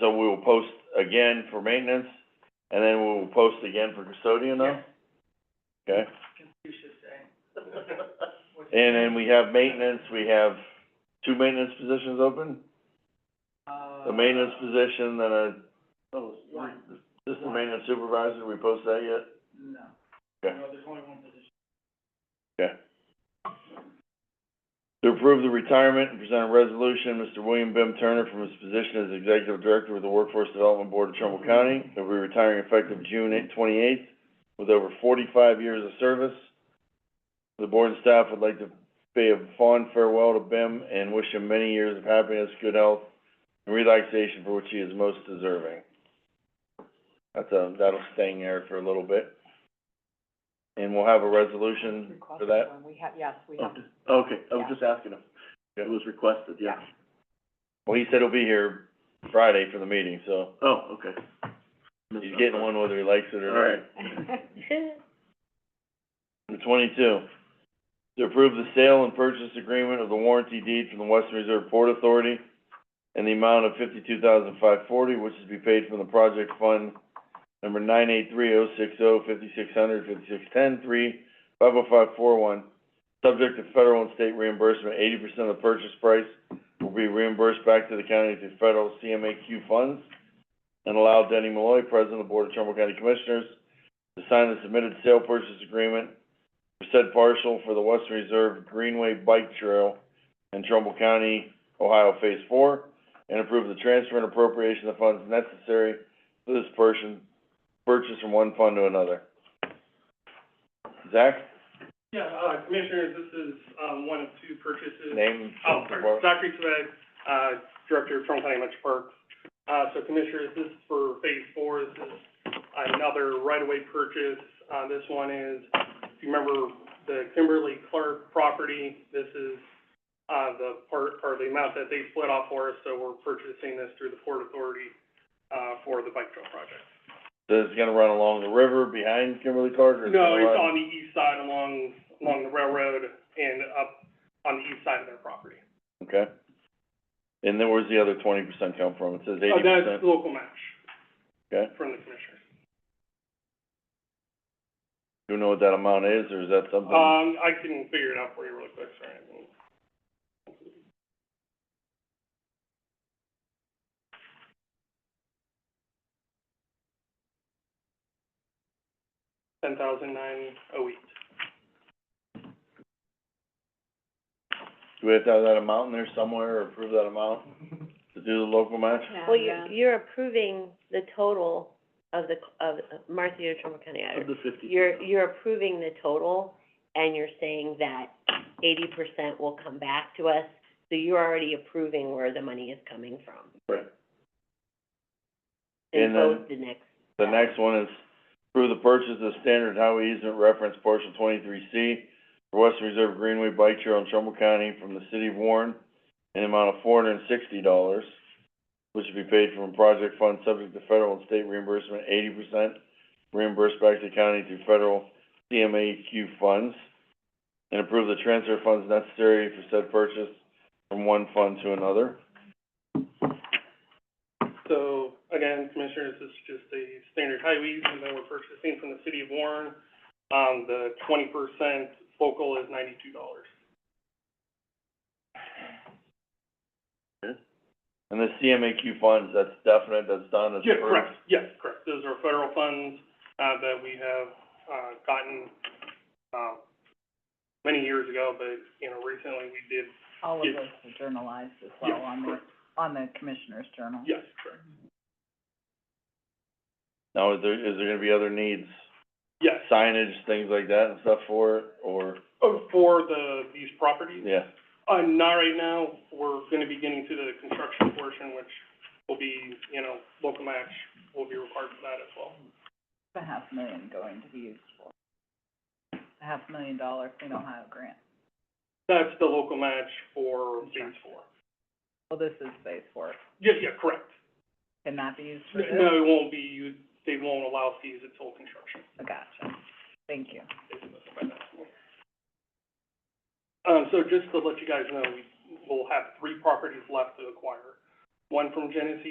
so we will post again for maintenance, and then we will post again for custodian now? Okay, Confucius saying. and then we have maintenance, we have two maintenance positions open? Uh, A maintenance position, then a, oh, One. just the maintenance supervisor, we post that yet? No. Okay. No, there's only one position. To approve the retirement and present a resolution, Mr. William Bim Turner from his position as Executive Director with the Workforce Development Board of Trumbull County. He'll be retiring effective June twenty-eighth with over forty-five years of service. The board and staff would like to pay a fond farewell to Bim and wish him many years of happiness, good health, and relaxation for which he is most deserving. That's a, that'll sting there for a little bit. And we'll have a resolution for that. Requested one. We have, yes, we have, Okay, okay, I was Yeah. just asking him. It was requested, yeah. Well, he said he'll be here Friday for the meeting, so Oh, okay. he's getting one whether he likes it or not. All right. Number twenty-two, to approve the sale and purchase agreement of the warranty deed from the Western Reserve Port Authority and the amount of fifty-two thousand five forty, which is to be paid from the project fund number nine eight three oh six oh fifty-six hundred fifty-six ten three five oh five four one. Subject to federal and state reimbursement, eighty percent of the purchase price will be reimbursed back to the county through federal CMAQ funds. And allow Denny Malloy, President of the Board of Trumbull County Commissioners, to sign the submitted sale purchase agreement for said parcel for the Western Reserve Greenway Bike Trail in Trumbull County, Ohio Phase Four, and approve the transfer and appropriation of funds necessary for this person, purchase from one fund to another. Zach, Yeah, uh, Commissioners, this is, um, one of two purchases. name? Oh, sorry, Zachary Sweat, uh, Director of Trumbull County Metro Parks. Uh, so Commissioners, this is for Phase Four, this is another right-of-way purchase. Uh, this one is, if you remember, the Kimberly Clark property, this is, uh, the part, or the amount that they split off for us, so we're purchasing this through the Port Authority, uh, for the bike trail project. So it's gonna run along the river behind Kimberly Clark, or it's No, gonna it's run- on the east side along, along the railroad and up on the east side of their property. Okay. And then where's the other twenty percent come from? It says eighty Uh, percent. That's local match. Okay. From the commissioners. Do you know what that amount is, or is that something? Um, I can figure it out for you really quick, sorry. I mean, Ten thousand nine oh eight. Do we have to have that amount in there somewhere, or approve that amount to do the local match? Well, you're, you're approving the total of the, of Martha, you're Trumbull County Of Auditor. the fifty. You're, you're approving the total, and you're saying that eighty percent will come back to us, so you're already approving where the money is coming from. Right. And And then- vote the next, The next one is approve the purchase of standard highway easement reference portion twenty-three C for Western Reserve Greenway Bike Trail in Trumbull County from the city of Warren in the amount of four hundred and sixty dollars, which would be paid from project fund subject to federal and state reimbursement, eighty percent reimbursed back to the county through federal CMAQ funds, and approve the transfer of funds necessary for said purchase from one fund to another. So, again, Commissioners, this is just the standard highways, and then we're purchasing from the city of Warren. Um, the twenty percent local is ninety-two dollars. And the CMAQ funds, that's definite, that's done, it's Yeah, approved. correct, yes, correct. Those are federal funds, uh, that we have, uh, gotten, uh, many years ago, but, you know, recently we did, All of Yeah. those are journalized as well Yeah, on the, correct. on the commissioner's journal. yes, correct. Now, is there, is there gonna be other needs, Yes, signage, things like that and stuff for it, or, Oh, for the, these properties, yeah, Uh, not right now, we're gonna be getting to the construction portion, which will be, you know, local match will be required for that as well. The half million going to be used for, the half million dollar Clean Ohio grant. That's the local match for phase four. Well, this is phase four. Yeah, yeah, correct. Can that be used for this? No, it won't be, you, they won't allow fees until construction. Oh, Gotcha. Thank you. Um, so just to let you guys know, we will have three properties left to acquire. One from Genesee